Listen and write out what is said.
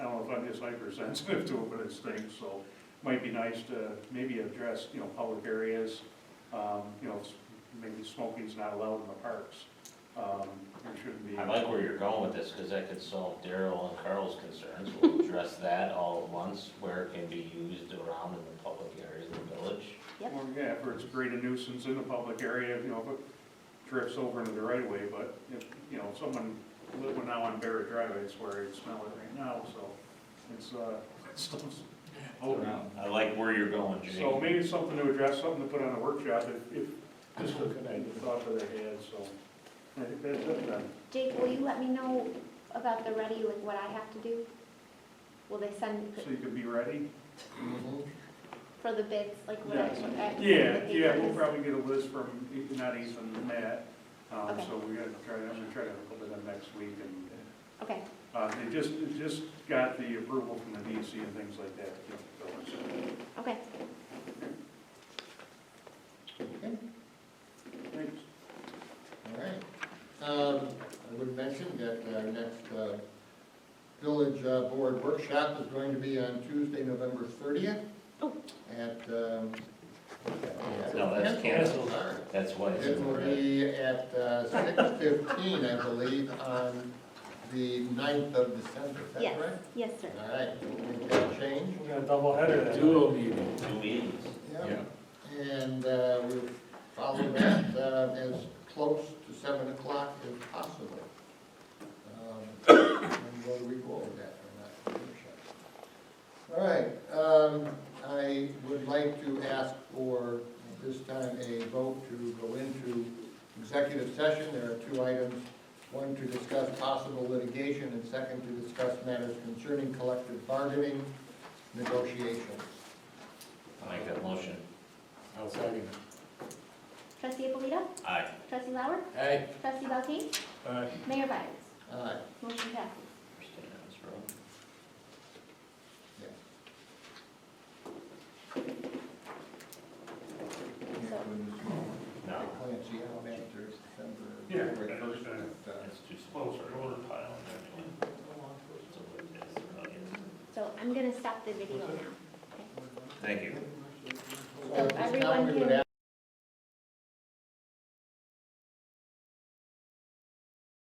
is hypersensitive to it with its things, so might be nice to maybe address, you know, public areas, um, you know, s- maybe smoking's not allowed in the parks. Um, There shouldn't be. I like where you're going with this, because that could solve Daryl and Carl's concerns. We'll address that all at once, where it can be used around in the public areas of the village. Yep. Or, yeah, if it's great a nuisance in the public area, you know, if it drifts over into the right of way, but if, you know, someone living now on Barrett Drive, I swear, I smell it right now, so it's, uh, it's still open. I like where you're going, Jake. So maybe it's something to address, something to put on a workshop if, if this was the thought that I had, so. I think that's it then. Jake, will you let me know about the ready, like what I have to do? Will they send So you can be ready? for the bids, like what I uh, Yes. what I have to Yeah, send the yeah, we'll papers? probably get a list from, if not Ethan, Matt. Um, Okay. so we're gonna try, I'm gonna try to look at them next week and Okay, Uh, they just, they just got the approval from the DEC and things like that. you know, so it's- okay. Okay, thanks. all right. Um, I would mention that our next, uh, village uh, board workshop is going to be on Tuesday, November thirtieth Oh. at, um. No, that's canceled. Sorry. That's why it's It in will red. be at uh, six fifteen, I believe, on the 9th of December, is that Yes, correct? yes, sir. All right, we'll make that change. We got a double header then. Dual meeting. Two meetings. Yeah. And uh, we'll follow that uh, as close to seven o'clock as possible. Um, And whether we go over that or not, I'm not sure. All right, um, I would like to ask for, at this time, a vote to go into executive session. There are two items, one to discuss possible litigation, and second, to discuss matters concerning collective bargaining negotiations. I Make that motion. I'll second. Trustee Abolito? Aye. Trustee Lauer? Aye. Trustee Valteen? Aye. Mayor Byers? Aye. Motion passes. We're staying on this road. No, Clancy, how many there's December? Yeah. December first, uh, it's too small. Close our order pile. anyway. So I'm gonna stop the video now. Thank you. so at this time, Everyone we would can-